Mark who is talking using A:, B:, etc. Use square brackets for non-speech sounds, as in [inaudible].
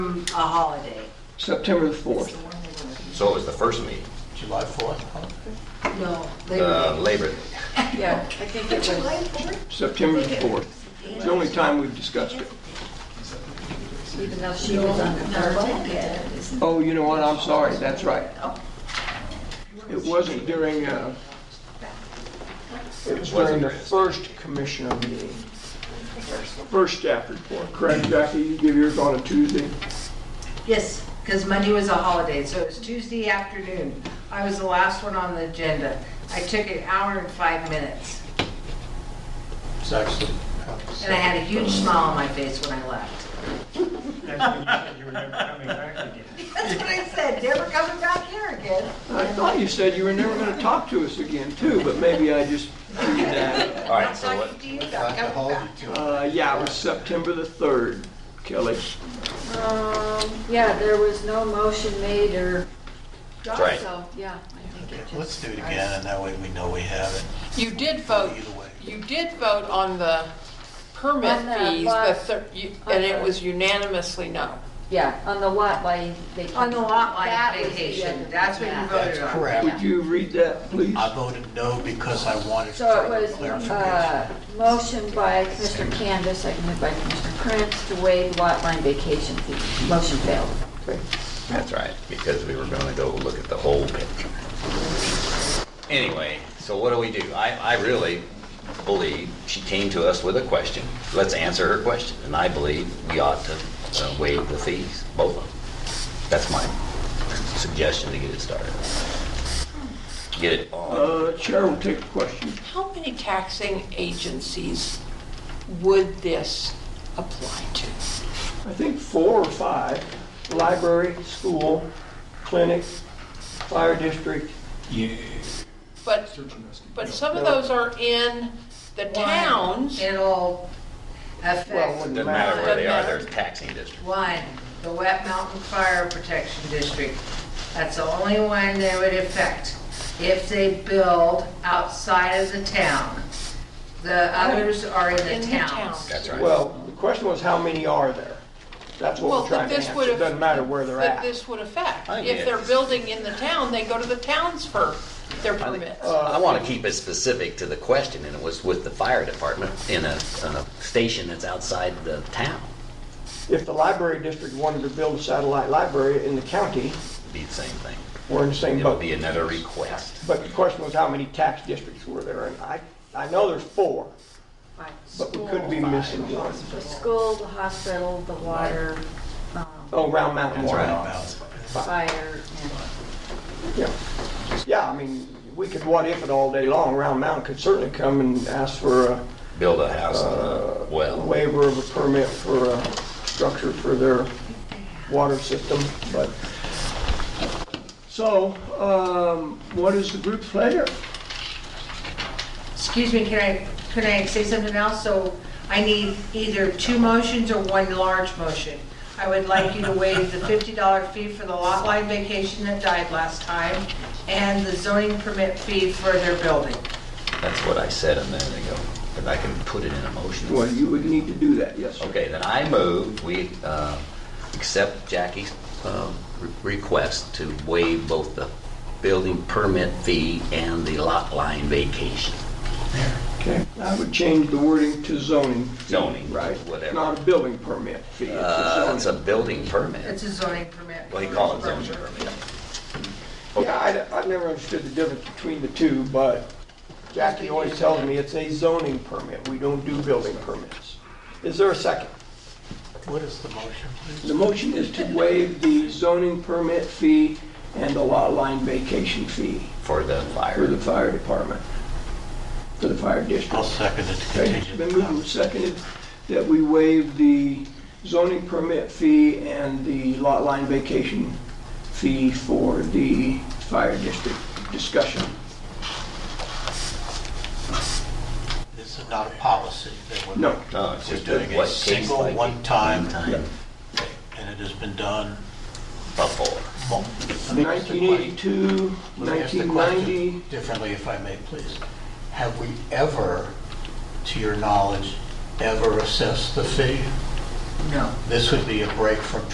A: from a holiday.
B: September the 4th.
C: So it was the first meeting,
D: July 4th, huh?
A: No,
C: uh,
A: Labor
C: Labor Day.
A: Day. Yeah, I think it was,
B: September the 4th. It's the only time we've discussed it.
A: even though she was on the third.
B: Oh, you know what, I'm sorry, that's right. It wasn't during, uh, it was during
C: Wasn't
B: the
C: during this.
B: first commissioner meeting. First staff report, correct, Jackie? You give yours on a Tuesday?
A: Yes, because Monday was a holiday, so it was Tuesday afternoon. I was the last one on the agenda. I took an hour and five minutes,
D: It's actually.
A: and I had a huge smile on my face when I left. [laughs] That's what I said, never coming back here again.
B: I thought you said you were never going to talk to us again, too, but maybe I just figured that.
C: All right, so what,
A: Talking to you, not coming back.
B: Uh, Yeah, it was September the 3rd, Kelly.
E: Um, yeah, there was no motion made or,
C: that's right.
E: so, yeah, I think it just.
D: Let's do it again, and that way we know we have it.
F: You did vote,
D: Either way.
F: you did vote on the permit
E: On the
F: fees, the
E: lot.
F: thir- you- and it was unanimously no.
E: Yeah, on the lot line, they.
A: On the lot
E: That
A: line
E: was the
A: vacation,
E: other-
A: that's what you
E: Oh, yeah.
D: That's
A: voted on.
D: correct.
B: Would you read that, please?
D: I voted no because I wanted
E: So it
D: further
E: was,
D: clarification.
E: uh, motion by Mr. Candace, seconded by Mr. Prince to waive lot line vacation fee. Motion failed.
C: That's right, because we were gonna go look at the whole picture. Anyway, so what do we do? I, I really believe she came to us with a question. Let's answer her question, and I believe we ought to uh, waive the fees, both of them. That's my suggestion to get it started. Get it on.
B: Uh, Chair will take the question.
F: How many taxing agencies would this apply to?
B: I think four or five, library, school, clinic, fire district.
F: But, but some of those are in the towns.
A: It'll
B: Well, it
A: affect,
B: wouldn't
C: Doesn't matter
B: matter.
C: where they are, they're taxing district.
A: one, the Wet Mountain Fire Protection District. That's the only one that would affect if they build outside of the town. The others are in
F: In
A: the
F: the
A: towns.
F: towns.
C: That's right.
B: Well, the question was how many are there? That's what
F: Well,
B: we're trying
F: that
B: to
F: this
B: answer.
F: would
B: It
F: have.
B: doesn't matter where they're
F: that
B: at.
F: this would affect.
C: I think
F: If they're
C: it's-
F: building in the town, they go to the towns for their permits.
C: I want to keep it specific to the question, and it was with the fire department in a, in a station that's outside the town.
B: If the library district wanted to build a satellite library in the county,
C: Be the same thing.
B: we're in the same
C: It'll
B: boat.
C: be another request.
B: But the question was how many tax districts were there? And I, I know there's four,
E: Right.
B: but we could be missing one.
E: The school, the hospital, the water, um,
B: Oh, Round Mountain
D: That's
B: Water.
D: right.
E: fire, and.
B: Yeah, yeah. I mean, we could what if it all day long. Round Mountain could certainly come and ask for a
C: Build a house on a well.
B: waiver of a permit for a structure for their water system, but. So, um, what is the group's pleasure?
A: Excuse me, can I, can I say something else? So I need either two motions or one large motion. I would like you to waive the $50 fee for the lot line vacation that died last time and the zoning permit fee for their building.
C: That's what I said a minute ago, but I can put it in a
B: Well,
C: motion.
B: you would need to do that, yes, sir.
C: Okay, then I move, we uh, accept Jackie's um, re- request to waive both the building permit fee and the lot line vacation.
B: Okay. I would change the wording to zoning.
C: Zoning,
B: Right.
C: whatever.
B: Not a building permit fee, it's
C: Uh,
B: a
C: It's a
B: zoning.
C: building permit.
A: It's a zoning permit.
C: Well, you call it zoning permit.
B: Yeah, I, I never understood the difference between the two, but Jackie always tells me it's a zoning permit. We don't do building permits. Is there a second?
D: What is the motion, please?
B: The motion is to waive the zoning permit fee and the lot line vacation fee
C: For the
B: for
C: fire.
B: the fire department, for the fire
D: I'll
B: district.
D: second it to
B: Okay, it's been
D: continue.
B: moved and seconded that we waive the zoning permit fee and the lot line vacation fee for the fire district discussion.
D: This is not a policy. that we're-
B: No.
C: No, it's
D: We're
C: just
D: doing a
C: what, case by
D: single,
C: case?
D: one-time,
C: Time
D: and it has been done
C: before.
D: mul-
B: 1982,
D: Let me ask the question
B: 1990,
D: Differently, if I may, please. Have we ever, to your knowledge, ever assessed the fee?
A: No.
D: This would be a break from